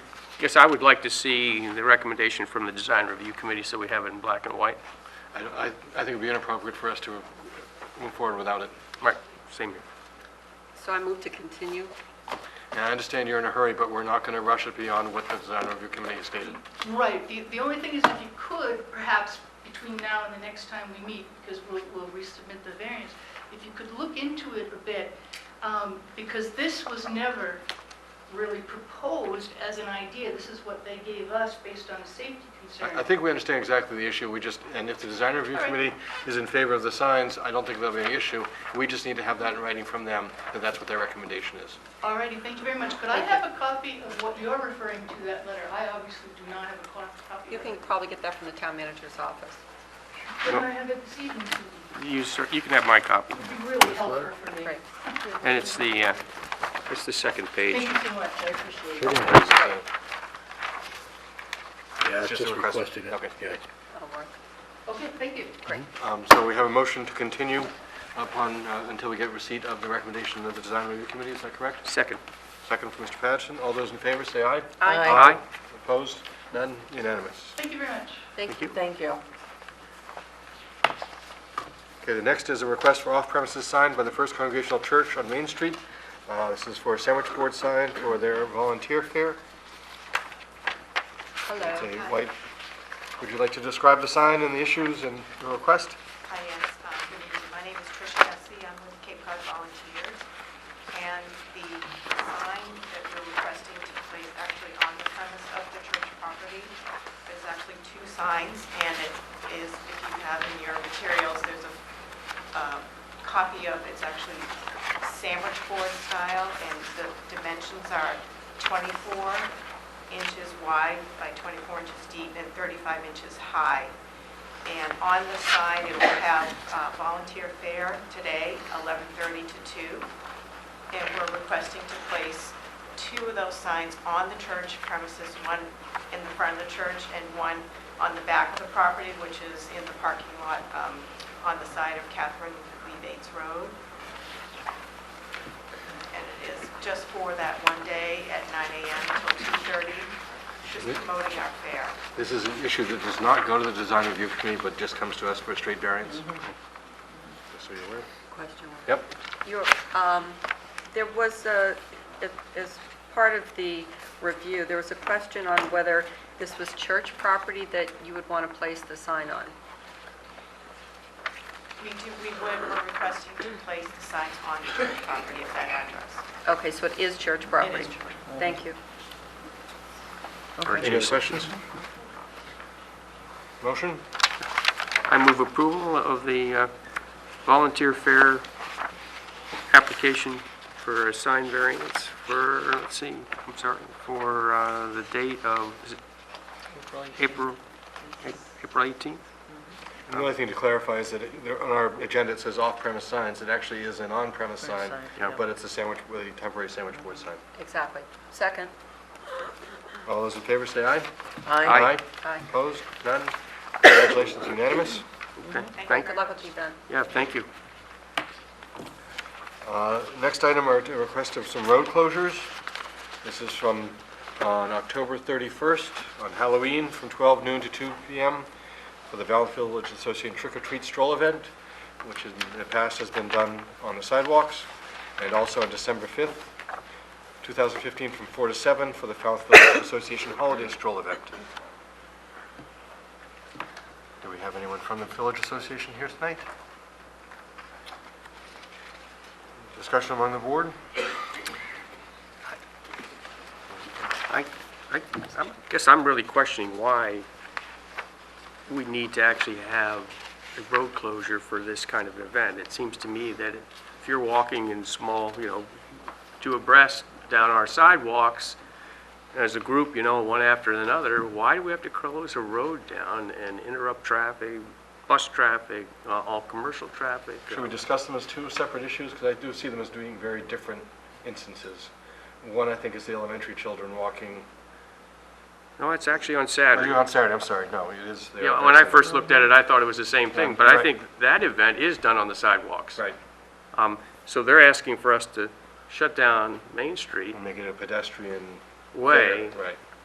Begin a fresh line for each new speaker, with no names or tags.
Guess I would like to see the recommendation from the design review committee so we have it in black and white.
I, don't- I I think it'd be inappropriate for us to move forward without it.
Right, same here.
So I move to continue.
And I understand you're in a hurry, but we're not going to rush it beyond what the design review committee has stated.
Right, the, the only thing is if you could, perhaps between now and the next time we meet, because we'll, we'll resubmit the variance, if you could look into it a bit, um, because this was never really proposed as an idea, this is what they gave us based on a safety concern.
I I think we understand exactly the issue, we just, and if the design review
All right.
committee is in favor of the signs, I don't think there'll be any issue. We just need to have that in writing from them, that that's what their recommendation is.
Alrighty, thank you very much. Could I have a copy of what you're referring to, that letter? I obviously do not have a co- copy
You
of it.
can probably get that from the town manager's office.
Could I have it this evening? Susan?
You, sir, you can have my copy.
It'd be really helpful for me.
Great.
And it's the, uh, it's the second page.
Thank you so much, I appreciate it.
Yeah,
It's
it's
just a
just
request.
requested it.
Okay.
Yeah.
That'll work.
Okay, thank you.
Um, So we have a motion to continue upon, uh, until we get receipt of the recommendation of the design review committee, is that correct?
Second.
Second from Mr. Patterson, all those in favor, say aye.
Aye.
Opposed? None? Unanimous.
Thank you very much.
Thank you.
Thank you.
Okay, the next is a request for off-premises sign by the First Congregational Church on Main Street. Uh, This is for a sandwich board sign for their volunteer fair. It's
Hello.
a white, would you like to describe the sign and the issues and the request?
Hi, yes, uh, good evening. My name is Tricia Hesse. I'm with Cape Cod Volunteers. And the sign that we're requesting to place actually on the premise of the church property, there's actually two signs, and it is, if you have in your materials, there's a uh, copy of, it's actually sandwich board style, and the dimensions are 24 inches wide by 24 inches deep and 35 inches high. And on the side, it will have uh, volunteer fair today, 11:30 to 2. And we're requesting to place two of those signs on the church premises, one in the front of the church and one on the back of the property, which is in the parking lot um, on the side of Catherine Lee Bates Road. And it is just for that one day at 9 a.m. till 2:30, just promoting our fair.
This is an issue that does not go to the design review committee, but just comes to us for a straight variance. Just so you're aware.
Question.
Yep.
You're, um, there was a, it- as part of the review, there was a question on whether this was church property that you would want to place the sign on.
We do, we would, we're requesting to place the signs on the church property at that address.
Okay, so it is church property?
church.
Thank you.
Any other questions? Motion?
I move approval of the uh, volunteer fair application for a sign variance for, let's see, I'm sorry, for uh, the date of, is it April, April 18th?
The only thing to clarify is that it- there- on our agenda, it says off-premise signs. It actually is an on-premise sign,
yeah.
but it's a sandwich, with a temporary sandwich board sign.
Exactly. Second.
All those in favor, say aye.
Aye.
Aye.
Opposed? None? Congratulations, unanimous.
Okay,
you.
thank,
Good luck with the event.
yeah, thank you.
Uh, Next item are a request of some road closures. This is from uh, on October 31st, on Halloween, from 12 noon to 2 p.m. for the Valley Village Association Trick or Treat Stroll Event, which in the past has been done on the sidewalks, and also on December 5th, 2015, from 4 to 7 for the Falmouth Village Association Holiday Stroll Event. Do we have anyone from the Village Association here tonight? Discussion among the board?
I, I I'm- guess I'm really questioning why we need to actually have a road closure for this kind of event. It seems to me that if you're walking in small, you know, two abreast down our sidewalks, as a group, you know, one after another, why do we have to close a road down and interrupt traffic, bus traffic, uh, all commercial traffic?
Should we discuss them as two separate issues? Because I do see them as doing very different instances. One, I think, is the elementary children walking,
No, it's actually on
or
Saturday.
you on Saturday, I'm sorry, no, it is there.
Yeah, when I first looked at it, I thought it was the same thing, but I
Right.
think that event is done on the sidewalks.
Right,
Um, So they're asking for us to shut down Main Street
and make it a pedestrian.
way
Right.